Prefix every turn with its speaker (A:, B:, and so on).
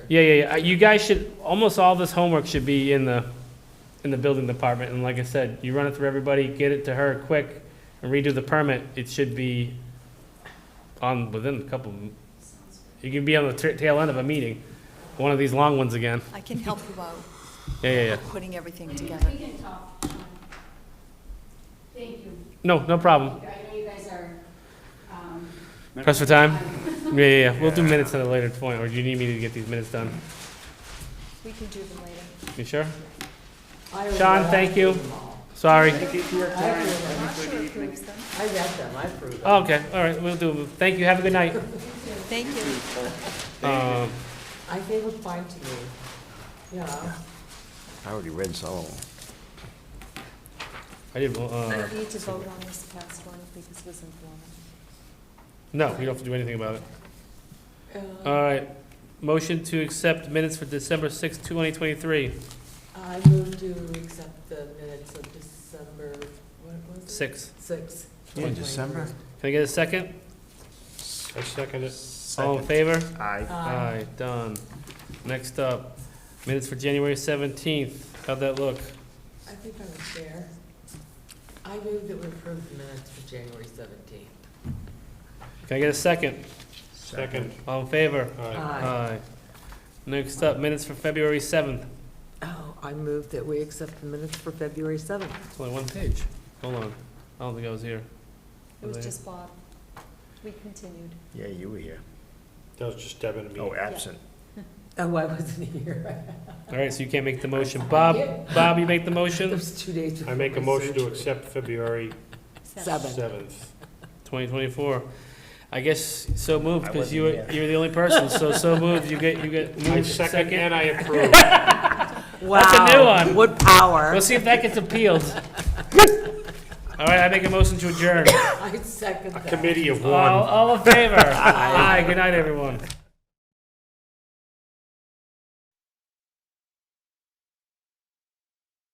A: Yeah, yeah, yeah. Uh, You guys should, almost all this homework should be in the, in the building department, and like I said, you run it through everybody, get it to her quick, and redo the permit, it should be on, within a couple, you can be on the tra- tail end of a meeting, one of these long ones again.
B: I can help you out,
A: Yeah, yeah, yeah.
B: putting everything together.
C: We can talk. Thank you.
A: No, no problem.
C: I know you guys are, um,
A: Press for time? Yeah, yeah, yeah. We'll do minutes at a later point, or do you need me to get these minutes done?
B: We can do them later.
A: You sure? Sean, thank you. Sorry.
B: I'm not sure approves them.
D: I read them, I approved them.
A: Oh, Okay, all right, we'll do. Thank you. Have a good night.
B: Thank you.
A: Um,
D: I gave a fine to me, yeah.
E: I already read some of them.
A: I did, uh,
B: We need to vote on this past one because it was informal.
A: no, you don't have to do anything about it.
D: Uh,
A: All right. Motion to accept minutes for December sixth, twenty twenty-three.
D: I move to accept the minutes of December, what was it?
A: Six.
D: Six.
E: Yeah, December.
A: Can I get a second?
F: I second it.
A: All in favor?
D: Um,
E: Aye.
D: Aye.
A: done. Next up, minutes for January seventeenth. How'd that look?
D: I think I was there. I move that we approve the minutes for January seventeenth.
A: Can I get a second?
F: Second.
A: All in favor?
F: Aye.
A: Uh,
D: Aye.
A: Next up, minutes for February 7th.
D: Oh, I move that we accept the minutes for February seventh.
A: It's only one page. Hold on. I don't think I was here.
B: It was
A: I?
B: just Bob. We continued.
E: Yeah, you were here.
F: That was just Deb and me.
E: Oh, absent.
D: Oh, I wasn't here.
A: All right, so you can't make the motion. Bob, Bob, you make the
D: It
A: motion?
D: was two days before
F: I make a
D: my
F: motion to
D: surgery.
F: accept February
D: Seven.
F: 7th.
A: 2024. I guess so moved,
E: I
A: because
E: wasn't
A: you were,
E: here.
A: you were the only person, so so moved. You get, you get
F: I
A: moved
F: second
A: second.
F: and I approve.
A: That's a new
D: Wow,
A: one.
D: What power.
A: Let's see if that gets appealed. All right, I make a motion to adjourn.
D: I second
F: A
D: that.
E: Oh,
F: committee of
A: All,
F: one.
A: all in favor? Aye, good night, everyone.